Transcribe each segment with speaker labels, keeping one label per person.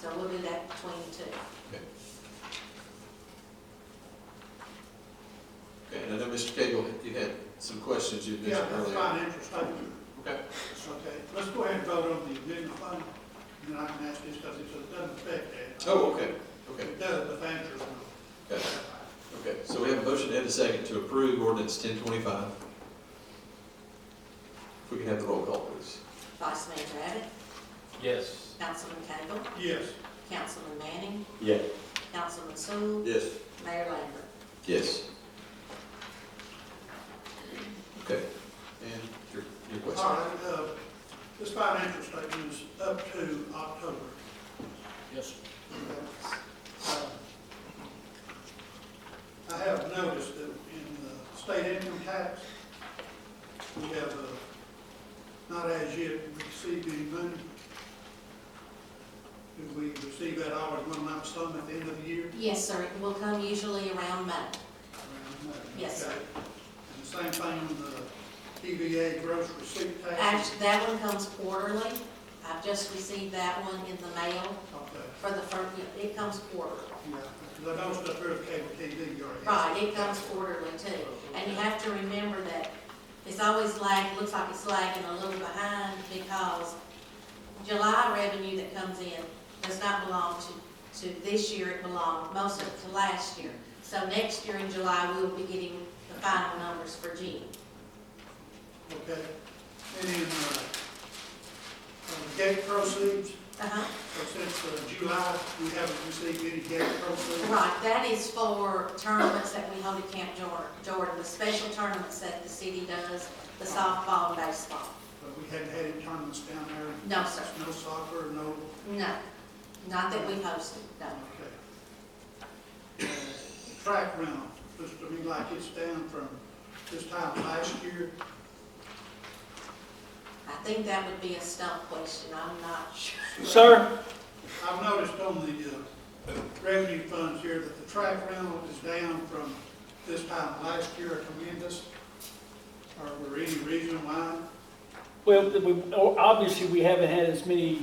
Speaker 1: So we'll do that between the two.
Speaker 2: Okay, and I know Mr. Cagle, you had some questions you
Speaker 3: Yeah,
Speaker 2: mentioned
Speaker 3: that's
Speaker 2: earlier.
Speaker 3: financial statement,
Speaker 2: Okay,
Speaker 3: it's okay. Let's go ahead and vote on the amendment fund, and then I can ask this, because it doesn't affect that.
Speaker 2: oh, okay, okay,
Speaker 3: It does, the financial one.
Speaker 2: okay, okay. So we have a motion and a second to approve ordinance ten twenty-five. If we can have the roll call, please.
Speaker 1: Vice Mayor Abbott,
Speaker 4: Yes.
Speaker 1: Councilman Cagle,
Speaker 3: Yes,
Speaker 1: Councilman Manning,
Speaker 4: Yes.
Speaker 1: Councilman Sewell,
Speaker 2: Yes.
Speaker 1: Mayor Lambert.
Speaker 2: Yes. Okay, and your, your
Speaker 3: all
Speaker 2: question?
Speaker 3: right, uh, this financial statement is up to October.
Speaker 4: Yes.
Speaker 3: Uh, I have noticed that in the state income tax, we have, uh, not as yet received any money. Do we receive that all in one lump sum at the end of the year?
Speaker 1: Yes, sir, it will come usually around May. Yes, sir.
Speaker 3: Okay. And the same thing with the TVA gross receipt tax?
Speaker 1: Actually, that one comes quarterly. I've just received that one in the mail
Speaker 3: Okay,
Speaker 1: for the first, it comes quarterly.
Speaker 3: yeah, because I know stuff here with cable TV, you already.
Speaker 1: Right, it comes quarterly too. And you have to remember that it's always lag, looks like it's lagging a little behind because July revenue that comes in does not belong to, to this year, it belonged most of it to last year. So next year in July, we'll be getting the final numbers for June.
Speaker 3: Okay, and then, uh, uh, gate proceeds,
Speaker 1: Uh-huh.
Speaker 3: So since uh, July, we haven't received any gate proceeds.
Speaker 1: Right, that is for tournaments that we hold at Camp Jor- Jordan, the special tournaments that the city does, the softball and baseball.
Speaker 3: But we haven't had any tournaments down there,
Speaker 1: No, sir,
Speaker 3: no soccer, no,
Speaker 1: no, not that we hosted, no.
Speaker 3: okay. Uh, Track rental, looks to me like it's down from this time last year.
Speaker 1: I think that would be a stump question, I'm not sure.
Speaker 4: Sir?
Speaker 3: I've noticed on the uh, revenue funds here that the track rental is down from this time last year a tremendous. Are there any reason why?
Speaker 5: Well, th- we- o- obviously, we haven't had as many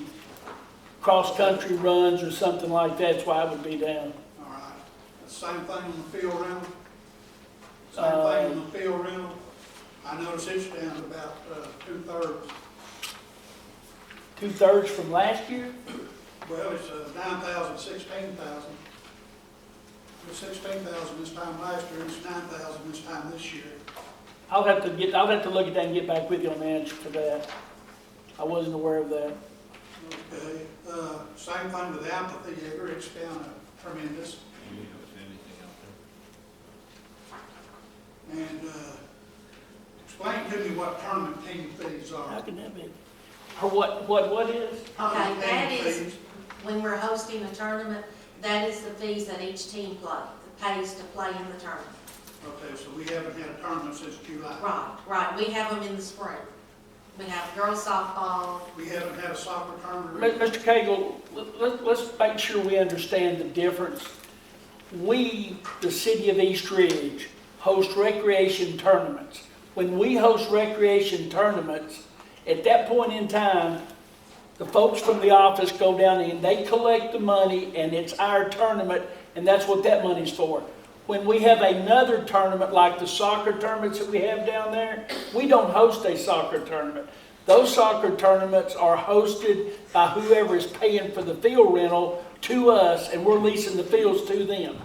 Speaker 5: cross-country runs or something like that, that's why it would be down.
Speaker 3: All right, same thing on the field rental? Same thing on the field rental? I noticed it's down about uh, two-thirds.
Speaker 5: Two-thirds from last year?
Speaker 3: Well, it's uh, nine thousand, sixteen thousand. It was sixteen thousand this time last year, it's nine thousand this time this year.
Speaker 5: I'll have to get, I'll have to look at that and get back with you on the answer to that. I wasn't aware of that.
Speaker 3: Okay, uh, same thing with the amphitheater, it's down a tremendous. And uh, explain to me what tournament team fees
Speaker 5: How
Speaker 3: are.
Speaker 5: can that be? Or what, what, what is?
Speaker 3: Tournament team
Speaker 1: that is-
Speaker 3: fees.
Speaker 1: When we're hosting a tournament, that is the fees that each team play, pays to play in the tournament.
Speaker 3: Okay, so we haven't had a tournament since July.
Speaker 1: Right, right, we have them in the spring. We have girls softball,
Speaker 3: We haven't had a soccer
Speaker 5: Mi-
Speaker 3: tournament.
Speaker 5: Mr. Cagle, let- let, let's make sure we understand the difference. We, the city of East Ridge, host recreation tournaments. When we host recreation tournaments, at that point in time, the folks from the office go down and they collect the money and it's our tournament and that's what that money's for. When we have another tournament like the soccer tournaments that we have down there, we don't host a soccer tournament. Those soccer tournaments are hosted by whoever is paying for the field rental to us and we're leasing the fields to them.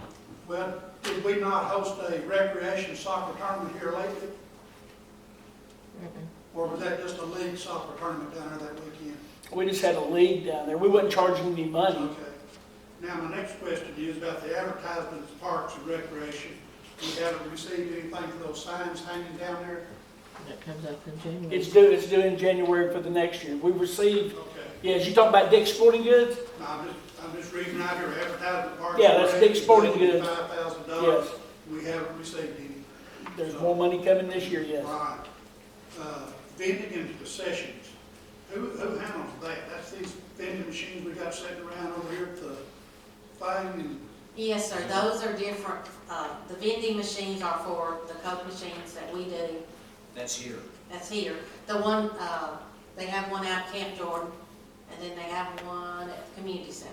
Speaker 3: Well, did we not host a recreation soccer tournament here lately? Or was that just a league soccer tournament down there that weekend?
Speaker 5: We just had a league down there. We wasn't charging any money.
Speaker 3: Okay. Now, my next question is about the advertisements, parks and recreation. We haven't received anything for those signs hanging down there?
Speaker 6: That comes up in January.
Speaker 5: It's due, it's due in January for the next year. We received,
Speaker 3: Okay.
Speaker 5: yes, you talking about Dick's Sporting Goods?
Speaker 3: Now, I'm just, I'm just reading out here, advertisement, parks.
Speaker 5: Yeah, that's Dick's Sporting Goods.
Speaker 3: Five thousand dollars.
Speaker 5: Yes.
Speaker 3: We haven't received any.
Speaker 5: There's more money coming this year, yes.
Speaker 3: Right. Uh, Vending and concessions, who, who handles that? That's these vending machines we got sitting around over here at the thing and,
Speaker 1: yes, sir, those are different. Uh, the vending machines are for the Coke machines that we do,
Speaker 4: That's here.
Speaker 1: that's here. The one, uh, they have one out at Camp Jordan, and then they have one at the community center.